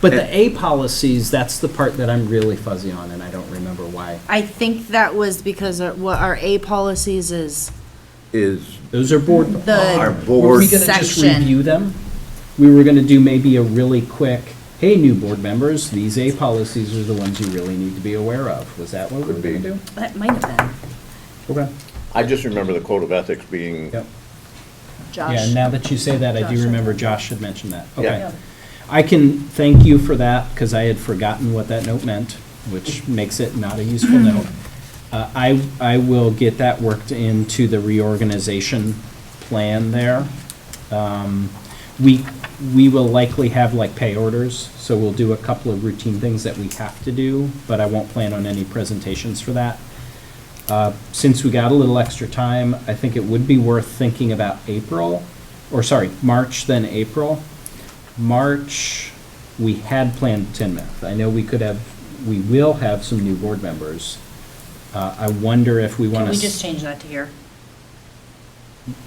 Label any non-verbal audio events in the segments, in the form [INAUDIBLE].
But the A policies, that's the part that I'm really fuzzy on, and I don't remember why. I think that was because our- what our A policies is, is Those are board. our the, Were board, we gonna just Section. review them? We were gonna do maybe a really quick, hey, new board members, these A policies are the ones you really need to be aware of. Was that what we were Could be. gonna do? that might have been, Okay. I just remember the code of ethics being, Yep. Yeah, Josh. now that you say that, I Josh do had remember Josh had mentioned that. Yeah. Okay. I can thank you for that, because I had forgotten what that note meant, which makes it not a useful [CLEARS THROAT] note. Uh, I, I will get that worked into the reorganization plan there. Um, We, we will likely have like pay orders, so we'll do a couple of routine things that we have to do, but I won't plan on any presentations for that. Uh, Since we got a little extra time, I think it would be worth thinking about April, or sorry, March then April. March, we had planned Tinmouth. I know we could have, we will have some new board members. Uh, I wonder if we want Can to. we just change that to here?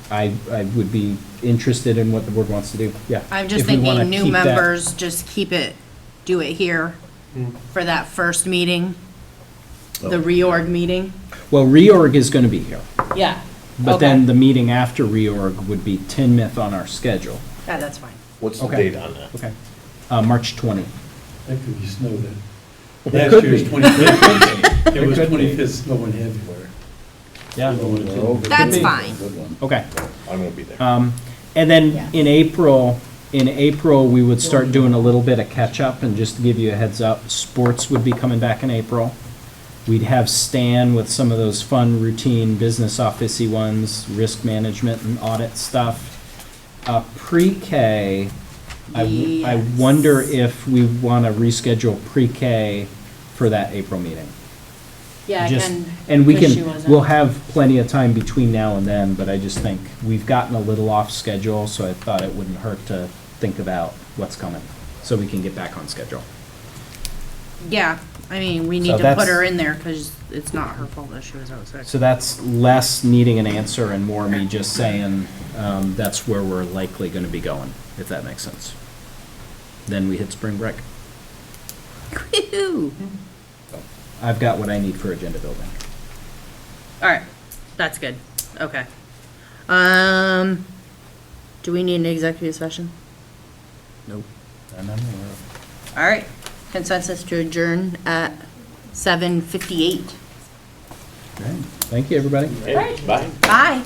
I, I would be interested in what the board wants to do, yeah. I'm just If we wanna thinking new keep that- members, just keep it, do it here for that first meeting, Oh. the reorg meeting. Well, reorg is going to be here, Yeah. but Okay. then the meeting after reorg would be Tinmouth on our schedule. Yeah, that's fine. what's the Okay. date on that? Okay. Uh, March 20. That could be snow then. It Last could year was be. [LAUGHS] 25th. It was could be. 25th snow and everywhere. Yeah. That's fine. Okay. I won't be there. Um, And Yeah. then in April, in April, we would start doing a little bit of catch-up, and just to give you a heads up, sports would be coming back in April. We'd have Stan with some of those fun routine business officey ones, risk management and audit stuff. Uh, pre-K, I, w- I Yes. wonder if we want to reschedule pre-K for that April meeting. Yeah, Just- And we can, we'll have plenty of time between now and then, but I just think we've gotten a little off schedule, so I thought it wouldn't hurt to think about what's coming, so we can get back on schedule. Yeah, I mean, we So need to that's- put her in there because it's not her fault that she was outside. So that's less needing an answer and more me just saying, um, that's where we're likely gonna be going, if that makes sense. Then we hit spring break. [LAUGHS] Woo-hoo. I've got what I need for agenda building. All right, that's good. Okay. Um, do we need an executive session? Nope. And I'm uh, aware of- All right, consensus to adjourn at seven fifty-eight. All right. Thank you, everybody. Hey, Bye. Bye.